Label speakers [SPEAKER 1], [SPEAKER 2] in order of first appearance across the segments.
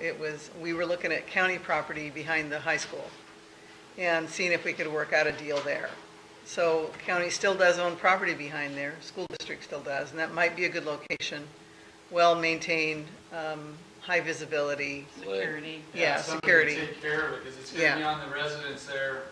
[SPEAKER 1] it was, we were looking at county property behind the high school and seeing if we could work out a deal there. So county still does own property behind there, school district still does, and that might be a good location, well-maintained, um, high visibility,
[SPEAKER 2] Security.
[SPEAKER 1] yeah,
[SPEAKER 3] somebody
[SPEAKER 1] security.
[SPEAKER 3] to Take care of it, because it's gonna be
[SPEAKER 1] Yeah.
[SPEAKER 3] on the residents there.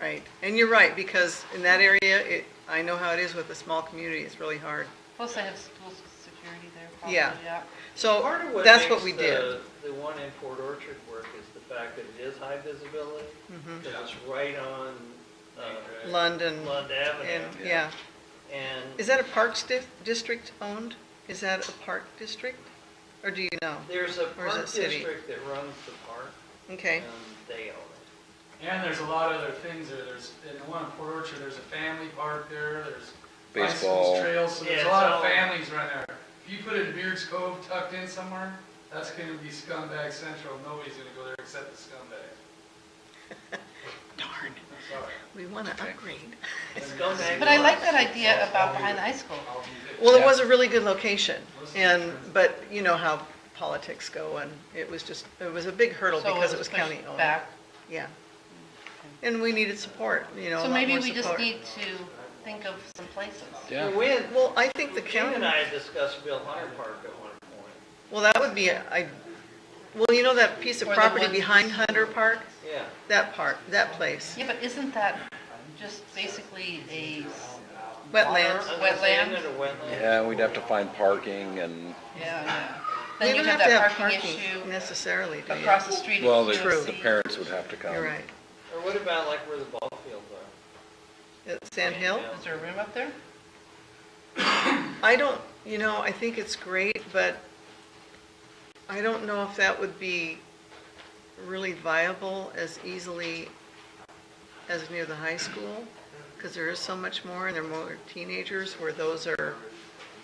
[SPEAKER 1] Right, and you're right, because in that area, it, I know how it is with a small community, it's really hard.
[SPEAKER 2] Plus they have school security there probably,
[SPEAKER 1] Yeah.
[SPEAKER 2] yeah.
[SPEAKER 1] So,
[SPEAKER 4] Part of what
[SPEAKER 1] that's what
[SPEAKER 4] makes
[SPEAKER 1] we
[SPEAKER 4] the-
[SPEAKER 1] did.
[SPEAKER 4] The one in Port Orchard work is the fact that it is high visibility,
[SPEAKER 1] Mhm.
[SPEAKER 4] because it's right on uh,
[SPEAKER 3] Right.
[SPEAKER 1] London,
[SPEAKER 4] Lund
[SPEAKER 1] and,
[SPEAKER 4] Avenue.
[SPEAKER 1] yeah. Is
[SPEAKER 4] And
[SPEAKER 1] that a parks dif- district owned? Is that a park district? Or do you know?
[SPEAKER 4] there's a
[SPEAKER 1] Or is it
[SPEAKER 4] park
[SPEAKER 1] city?
[SPEAKER 4] district that runs the park,
[SPEAKER 1] Okay,
[SPEAKER 4] and they own it.
[SPEAKER 3] And there's a lot of other things there, there's, in the one in Port Orchard, there's a family park there, there's bicycles,
[SPEAKER 5] Baseball.
[SPEAKER 3] trails, so there's
[SPEAKER 4] Yeah,
[SPEAKER 3] a lot of
[SPEAKER 4] it's all-
[SPEAKER 3] families right there. If you put it in Beards Cove tucked in somewhere, that's gonna be scumbag central, nobody's gonna go there except the scumbags.
[SPEAKER 1] darn,
[SPEAKER 3] I'm sorry.
[SPEAKER 1] we want to upgrade.
[SPEAKER 4] Scumbag
[SPEAKER 2] But I
[SPEAKER 4] park.
[SPEAKER 2] like that idea about behind the high school.
[SPEAKER 3] I'll be there.
[SPEAKER 1] Well, it
[SPEAKER 5] Yeah.
[SPEAKER 1] was a really good location,
[SPEAKER 3] Listen,
[SPEAKER 1] and,
[SPEAKER 3] friends.
[SPEAKER 1] but you know how politics go, and it was just, it was a big hurdle
[SPEAKER 2] So
[SPEAKER 1] because it was
[SPEAKER 2] pushed
[SPEAKER 1] county owned.
[SPEAKER 2] Back.
[SPEAKER 1] Yeah. And we needed support, you know, a
[SPEAKER 2] So
[SPEAKER 1] lot
[SPEAKER 2] maybe
[SPEAKER 1] more
[SPEAKER 2] we just
[SPEAKER 1] support.
[SPEAKER 2] need to think of some places.
[SPEAKER 5] Yeah.
[SPEAKER 4] We had-
[SPEAKER 1] Well, I think the
[SPEAKER 4] Jim and
[SPEAKER 1] county,
[SPEAKER 4] I discussed Bill Hunter Park at one point,
[SPEAKER 1] well, that would be, I, well, you know that piece of
[SPEAKER 2] Or the
[SPEAKER 1] property
[SPEAKER 2] one-
[SPEAKER 1] behind Hunter Park?
[SPEAKER 4] yeah.
[SPEAKER 1] That part, that place,
[SPEAKER 2] Yeah, but isn't that just basically a s-
[SPEAKER 1] wetlands.
[SPEAKER 2] Water.
[SPEAKER 4] Is it
[SPEAKER 2] Wetland?
[SPEAKER 4] in a wetland?
[SPEAKER 5] Yeah, we'd have to find parking and,
[SPEAKER 2] Yeah, yeah.
[SPEAKER 1] You
[SPEAKER 2] Then you
[SPEAKER 1] don't
[SPEAKER 2] have
[SPEAKER 1] to
[SPEAKER 2] that
[SPEAKER 1] have
[SPEAKER 2] parking
[SPEAKER 1] parking
[SPEAKER 2] issue
[SPEAKER 1] Necessarily, do you?
[SPEAKER 2] across the street. at
[SPEAKER 5] well, the,
[SPEAKER 2] QOC.
[SPEAKER 5] the parents would have to come.
[SPEAKER 1] You're right.
[SPEAKER 4] Or what about like where the ball fields are?
[SPEAKER 1] At Sand Hill?
[SPEAKER 2] Is there a room up there?
[SPEAKER 1] I don't, you know, I think it's great, but I don't know if that would be really viable as easily as near the high school, because there is so much more, and there are more teenagers where those are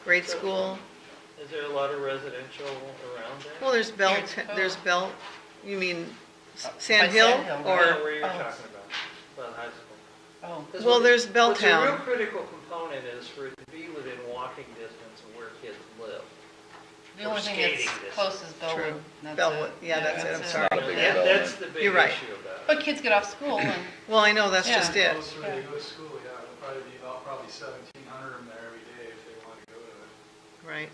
[SPEAKER 1] grade school.
[SPEAKER 4] Is there a lot of residential around there?
[SPEAKER 1] Well, there's Bell,
[SPEAKER 2] Here's Cove.
[SPEAKER 1] there's Bell, you mean S-
[SPEAKER 2] By
[SPEAKER 1] Sand
[SPEAKER 2] Sand
[SPEAKER 1] Hill?
[SPEAKER 2] Hill,
[SPEAKER 4] I don't know
[SPEAKER 1] Or, um,
[SPEAKER 4] where you're
[SPEAKER 2] oh.
[SPEAKER 4] talking about, about high school.
[SPEAKER 2] Oh,
[SPEAKER 4] 'Cause
[SPEAKER 1] Well,
[SPEAKER 4] what-
[SPEAKER 1] there's Belltown.
[SPEAKER 4] What's a real critical component is for it to be within walking distance of where kids live.
[SPEAKER 2] the only thing
[SPEAKER 4] skating
[SPEAKER 2] that's
[SPEAKER 4] this-
[SPEAKER 2] close is Bellwood.
[SPEAKER 1] True.
[SPEAKER 2] That's it.
[SPEAKER 1] Bellwood. Yeah, that's it. I'm sorry.
[SPEAKER 5] Not a big
[SPEAKER 4] That-
[SPEAKER 5] deal.
[SPEAKER 4] That's the big
[SPEAKER 1] You're right.
[SPEAKER 4] issue about it.
[SPEAKER 2] But kids get off school and,
[SPEAKER 1] well, I know, that's just
[SPEAKER 2] Yeah.
[SPEAKER 1] it.
[SPEAKER 3] Closer they go to school, yeah, it'll probably be about probably seventeen hundred of them there every day if they want to go to it.
[SPEAKER 1] Right.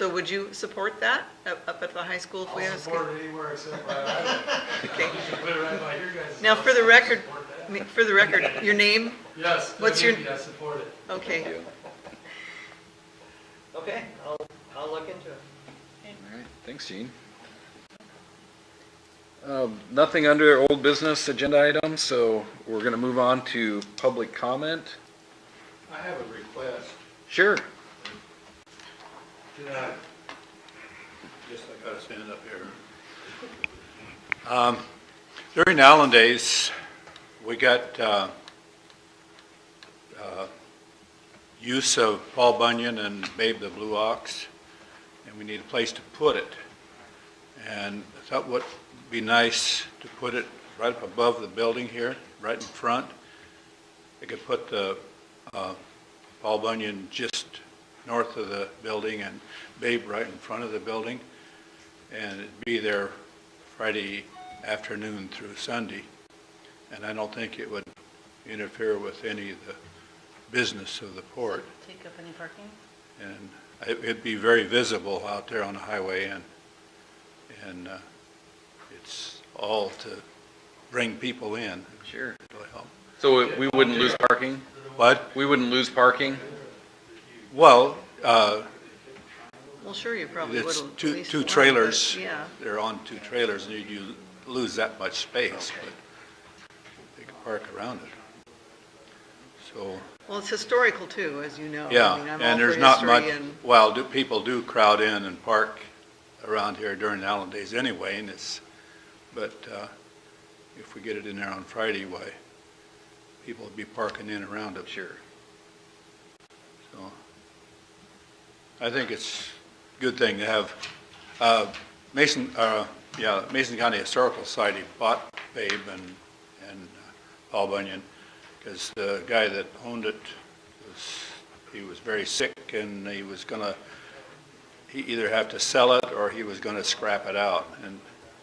[SPEAKER 1] So would you support that up up at the high school if we had
[SPEAKER 3] I'll
[SPEAKER 1] a school?
[SPEAKER 3] support it anywhere except by that.
[SPEAKER 1] Okay.
[SPEAKER 3] Put it right by your guys'
[SPEAKER 1] Now,
[SPEAKER 3] house.
[SPEAKER 1] for the
[SPEAKER 3] I'll
[SPEAKER 1] record-
[SPEAKER 3] support
[SPEAKER 1] I
[SPEAKER 3] that.
[SPEAKER 1] mean, For the record, your name?
[SPEAKER 3] Yes,
[SPEAKER 1] what's your-
[SPEAKER 3] WB, I support it.
[SPEAKER 1] Okay.
[SPEAKER 5] Thank you.
[SPEAKER 4] Okay, I'll, I'll look into it.
[SPEAKER 5] All right, thanks, Gene. Um, Nothing under old business agenda items, so we're gonna move on to public comment.
[SPEAKER 3] I have a request.
[SPEAKER 5] Sure.
[SPEAKER 6] Did I? Guess I gotta stand up here. Um, During the Allen days, we got, uh, uh, use of Paul Bunyan and Babe the Blue Ox, and we need a place to put it. And I thought would be nice to put it right up above the building here, right in front. They could put the, uh, Paul Bunyan just north of the building and Babe right in front of the building. And it'd be there Friday afternoon through Sunday. And I don't think it would interfere with any of the business of the port.
[SPEAKER 2] take up any parking?
[SPEAKER 6] And it- it'd be very visible out there on the highway and, and uh, it's all to bring people in.
[SPEAKER 5] Sure.
[SPEAKER 6] It'll help.
[SPEAKER 5] So we- we wouldn't lose parking?
[SPEAKER 6] But,
[SPEAKER 5] We wouldn't lose parking?
[SPEAKER 6] well, uh,
[SPEAKER 1] Well, sure, you probably would.
[SPEAKER 6] It's
[SPEAKER 1] at
[SPEAKER 6] two,
[SPEAKER 1] least
[SPEAKER 6] two
[SPEAKER 1] one, but
[SPEAKER 6] trailers.
[SPEAKER 1] Yeah,
[SPEAKER 6] They're on two trailers, and you you lose that much space, but they can park around it. So,
[SPEAKER 1] well, it's historical too, as you know. I
[SPEAKER 6] yeah,
[SPEAKER 1] mean, I'm all
[SPEAKER 6] and there's
[SPEAKER 1] for
[SPEAKER 6] not
[SPEAKER 1] history
[SPEAKER 6] much,
[SPEAKER 1] and-
[SPEAKER 6] well, do, people do crowd in and park around here during the Allen days anyway, and it's, but, uh, if we get it in there on Friday, why, people will be parking in around it. Sure. So, I think it's a good thing to have, uh, Mason, uh, yeah, Mason County Historical Society bought Babe and, and uh, Paul Bunyan, because the guy that owned it was, he was very sick, and he was gonna, he either have to sell it, or he was gonna scrap it out, and